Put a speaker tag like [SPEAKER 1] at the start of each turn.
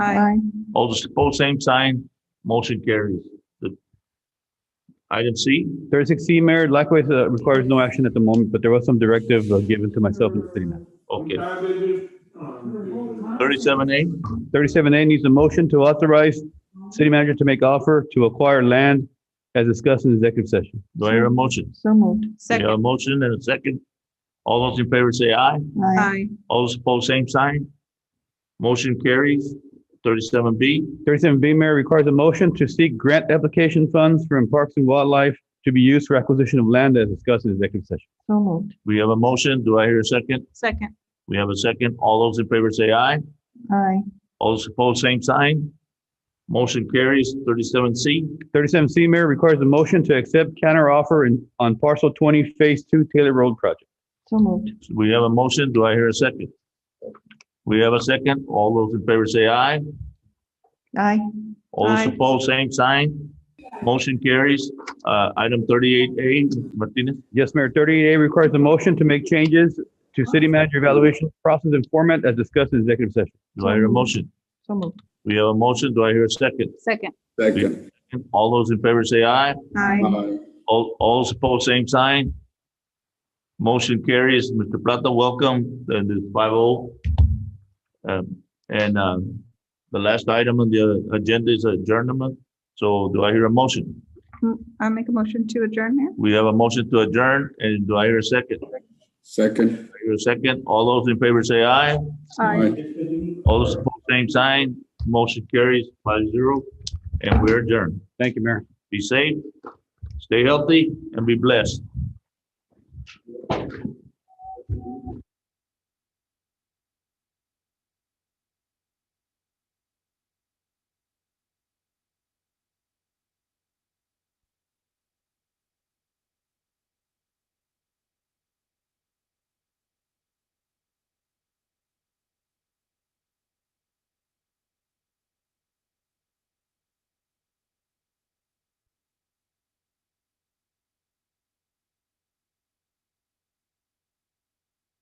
[SPEAKER 1] Aye.
[SPEAKER 2] All those opposed, same sign. Motion carries. The- Item C,
[SPEAKER 3] Thirty-six C, Mayor, likewise uh, requires no action at the moment, but there was some directive uh, given to myself and the city manager.
[SPEAKER 2] okay. Thirty-seven A,
[SPEAKER 3] Thirty-seven A needs a motion to authorize city manager to make offer to acquire land as discussed in executive session.
[SPEAKER 2] do I hear a motion?
[SPEAKER 1] So moved.
[SPEAKER 2] We have a motion and a second. All those in favor say aye.
[SPEAKER 1] Aye.
[SPEAKER 2] All those opposed, same sign. Motion carries. Thirty-seven B,
[SPEAKER 3] Thirty-seven B, Mayor, requires a motion to seek grant application funds from Parks and Wildlife to be used for acquisition of land as discussed in executive session.
[SPEAKER 1] So moved.
[SPEAKER 2] we have a motion. Do I hear a second?
[SPEAKER 1] Second.
[SPEAKER 2] We have a second. All those in favor say aye.
[SPEAKER 1] Aye.
[SPEAKER 2] All those opposed, same sign. Motion carries. Thirty-seven C,
[SPEAKER 3] Thirty-seven C, Mayor, requires a motion to accept counter offer in, on parcel twenty, phase two Taylor Road project.
[SPEAKER 1] So moved.
[SPEAKER 2] we have a motion. Do I hear a second? We have a second. All those in favor say aye.
[SPEAKER 1] Aye.
[SPEAKER 2] All those
[SPEAKER 1] Aye.
[SPEAKER 2] opposed, same sign. Motion carries. Uh, item thirty-eight A, Martinez,
[SPEAKER 3] Yes, Mayor, thirty-eight A requires a motion to make changes to city manager evaluation process and format as discussed in executive session.
[SPEAKER 2] do I hear a motion?
[SPEAKER 1] So moved.
[SPEAKER 2] We have a motion. Do I hear a second?
[SPEAKER 1] Second.
[SPEAKER 4] Second.
[SPEAKER 2] All those in favor say aye.
[SPEAKER 1] Aye.
[SPEAKER 4] Aye.
[SPEAKER 2] All, all those opposed, same sign. Motion carries. Mr. Plata, welcome, and it's five oh. Um, and, um, the last item on the agenda is adjournment. So do I hear a motion?
[SPEAKER 1] I make a motion to adjourn, Mayor?
[SPEAKER 2] We have a motion to adjourn, and do I hear a second? Do
[SPEAKER 4] Second.
[SPEAKER 2] I hear a second? All those in favor say aye.
[SPEAKER 1] Aye.
[SPEAKER 2] All those opposed, same sign. Motion carries five zero, and we're adjourned.
[SPEAKER 3] Thank you, Mayor.
[SPEAKER 2] Be safe, stay healthy, and be blessed.